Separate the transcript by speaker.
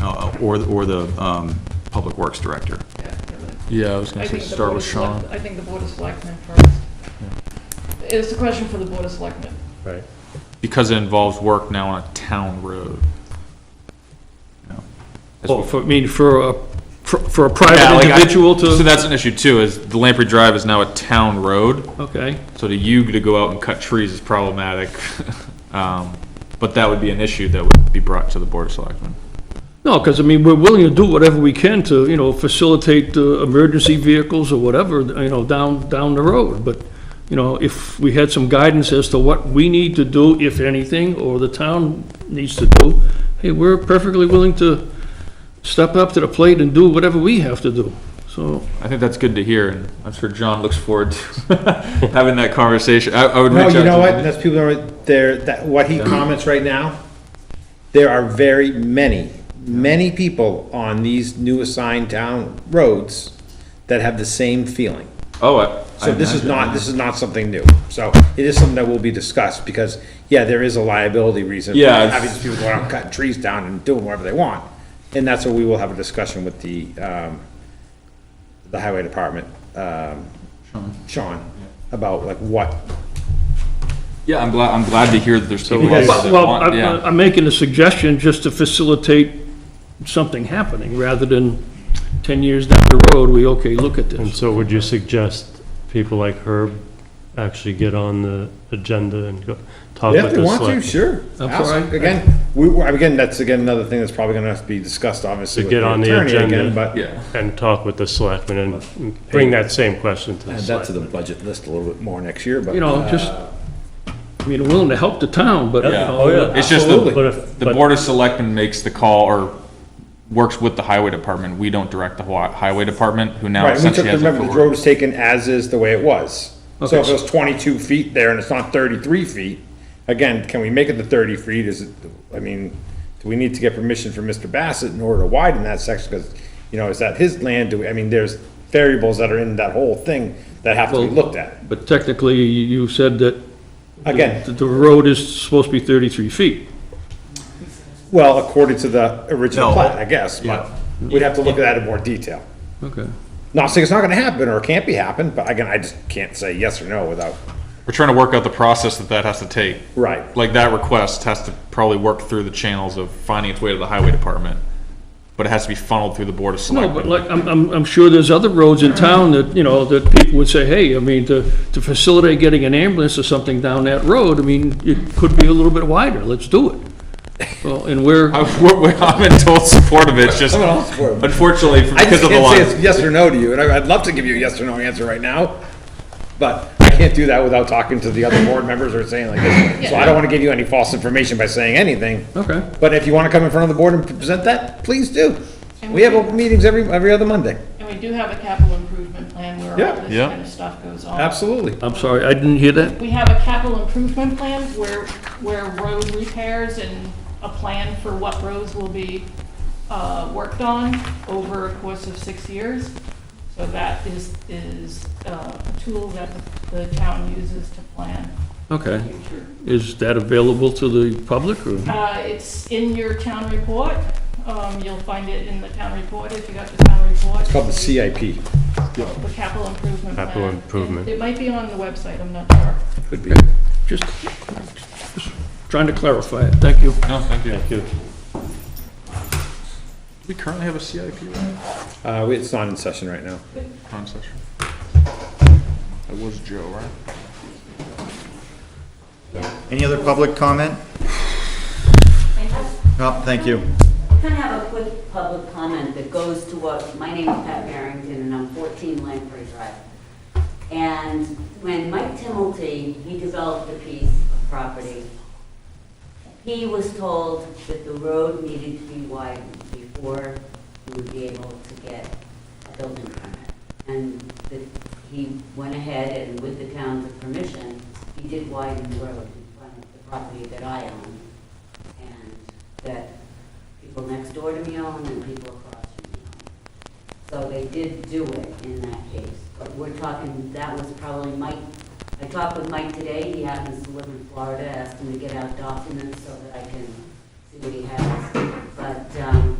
Speaker 1: uh, or, or the um, Public Works Director.
Speaker 2: Yeah,
Speaker 3: Yeah, I was
Speaker 2: I
Speaker 3: gonna say,
Speaker 2: think the
Speaker 3: start
Speaker 2: Board of
Speaker 3: with Sean.
Speaker 2: Select- I think the Board of Selectmen first. It's a question for the Board of Selectmen.
Speaker 4: Right.
Speaker 3: Because it involves work now on a town road.
Speaker 1: Yeah.
Speaker 3: That's
Speaker 4: Well,
Speaker 3: what-
Speaker 4: for, I mean, for a, for- for a
Speaker 3: Yeah,
Speaker 4: private
Speaker 3: like I-
Speaker 4: individual
Speaker 3: So
Speaker 4: to,
Speaker 3: that's an issue too, is the Lamprey Drive is now a town road,
Speaker 4: okay,
Speaker 3: so to you to go out and cut trees is problematic. Um, But that would be an issue that would be brought to the Board of Selectmen.
Speaker 4: no, because I mean, we're willing to do whatever we can to, you know, facilitate uh emergency vehicles or whatever, you know, down, down the road, but, you know, if we had some guidance as to what we need to do, if anything, or the town needs to do, hey, we're perfectly willing to step up to the plate and do whatever we have to do, so.
Speaker 3: I think that's good to hear, and I'm sure John looks forward to having that conversation. I, I would reach
Speaker 5: No,
Speaker 3: out to.
Speaker 5: you know what? That's people that are there. That what he comments right now. There are very many, many people on these new assigned town roads that have the same feeling.
Speaker 3: Oh, I.
Speaker 5: So
Speaker 3: I
Speaker 5: this is
Speaker 3: imagine.
Speaker 5: not this is not something new. So it is something that will be discussed because yeah, there is a liability reason. for
Speaker 3: Yeah, it's-
Speaker 5: having these people going out and cutting trees down and doing whatever they want, and that's what we will have a discussion with the um, the highway department, um, Sean, about like what
Speaker 3: Yeah, I'm glad, I'm glad to hear that there's people out there
Speaker 5: Because-
Speaker 3: that
Speaker 4: Well,
Speaker 3: want,
Speaker 4: I'm,
Speaker 3: yeah.
Speaker 4: I'm making a suggestion just to facilitate something happening, rather than 10 years down the road, we, okay, look at
Speaker 6: And
Speaker 4: this.
Speaker 6: so would you suggest people like Herb actually get on the agenda and go talk
Speaker 5: If
Speaker 6: with
Speaker 5: they
Speaker 6: the
Speaker 5: want to,
Speaker 6: select?
Speaker 5: sure.
Speaker 4: That's
Speaker 5: Ask.
Speaker 4: all right.
Speaker 5: Again, we, we- again, that's again another thing that's probably gonna have to be discussed, obviously,
Speaker 6: To
Speaker 5: with
Speaker 6: get
Speaker 5: the
Speaker 6: on the
Speaker 5: attorney again,
Speaker 6: agenda.
Speaker 5: but.
Speaker 3: Yeah.
Speaker 6: And talk with the selectmen and bring that same question to the
Speaker 5: Add that to the
Speaker 6: selectmen.
Speaker 5: budget list a little bit more next year, but.
Speaker 4: You know, just, I mean, willing to help the town, but, you
Speaker 3: Yeah.
Speaker 4: know,
Speaker 6: Oh, yeah.
Speaker 3: It's just the,
Speaker 6: But if,
Speaker 3: the
Speaker 6: but
Speaker 3: Board of Selectmen makes the call or works with the Highway Department. We don't direct the Hawa- Highway Department, who now
Speaker 5: Right, and we took,
Speaker 3: essentially has
Speaker 5: remember, the road
Speaker 3: authority.
Speaker 5: was taken as is the way it was. So if it was twenty-two feet there and it's not thirty-three feet, again, can we make it the thirty feet? Is it, I mean, do we need to get permission from Mr. Bassett in order to widen that section? Because, you know, is that his land? Do, we I mean, there's variables that are in that whole thing that have to be
Speaker 4: Well-
Speaker 5: looked at.
Speaker 4: but technically, you you said that
Speaker 5: Again,
Speaker 4: the- the road is supposed to be 33 feet.
Speaker 5: Well, according to the original
Speaker 1: No.
Speaker 5: plan, I guess, but we'd have to look at that in more detail.
Speaker 4: Okay.
Speaker 5: Not saying it's not gonna happen or it can't be happened, but again, I just can't say yes or no without,
Speaker 3: We're trying to work out the process that that has to take.
Speaker 5: right.
Speaker 3: Like that request has to probably work through the channels of finding its way to the Highway Department. But it has to be funneled through the Board of
Speaker 4: No, but
Speaker 3: Selectmen.
Speaker 4: like, I'm, I'm, I'm sure there's other roads in town that, you know, that people would say, hey, I mean, to, to facilitate getting an ambulance or something down that road, I mean, it could be a little bit wider, let's do it. Well, and we're,
Speaker 3: I- we're- we're- I'm in total support of it, it's just unfortunately
Speaker 5: I just
Speaker 3: because of the
Speaker 5: can't
Speaker 3: line.
Speaker 5: say it's yes or no to you, and I- I'd love to give you a yes or no answer right now, but I can't do that without talking to the other board members or saying like this. So I don't wanna give you any false information by saying anything.
Speaker 4: okay.
Speaker 5: But if you wanna come in front of the board and present that, please do.
Speaker 2: And
Speaker 5: We have
Speaker 2: we-
Speaker 5: open meetings every, every other Monday.
Speaker 2: And we do have a capital improvement plan where
Speaker 5: Yeah.
Speaker 2: all this
Speaker 3: Yeah.
Speaker 2: kind of stuff goes on.
Speaker 5: Absolutely.
Speaker 4: I'm sorry, I didn't hear that.
Speaker 2: We have a capital improvement plan where, where road repairs and a plan for what roads will be uh, worked on over a course of six years. So that is, is uh, a tool that the town uses to plan the
Speaker 4: Okay.
Speaker 2: future.
Speaker 4: Is that available to the public or?
Speaker 2: Uh, It's in your town report. Um, You'll find it in the town report if you got the town report.
Speaker 5: It's called the CIP.
Speaker 2: The capital improvement plan.
Speaker 6: Capital improvement.
Speaker 2: It might be on the website, I'm not sure.
Speaker 5: Could be.
Speaker 4: Just just trying to clarify it. Thank you.
Speaker 3: No, thank you.
Speaker 6: Thank you.
Speaker 3: We currently have a CIP, right?
Speaker 5: Uh, we- it's not in session right now.
Speaker 3: Wrong session. It was Joe, right?
Speaker 7: Any other public comment? No, thank you.
Speaker 8: I'm going to have a quick public comment that goes to what, my name is Pat Barrington, and I'm 14 Lamprey Drive. And when Mike Timmelty, he developed a piece of property, he was told that the road needed to be widened before he would be able to get a building permit. And that he went ahead and with the town's permission, he did widen the road in front of the property that I own and that people next door to me own and people across from me own. So they did do it in that case, but we're talking, that was probably Mike, I talked with Mike today, he happens to live in Florida, asked him to get out documents so that I can see what he has. But, um,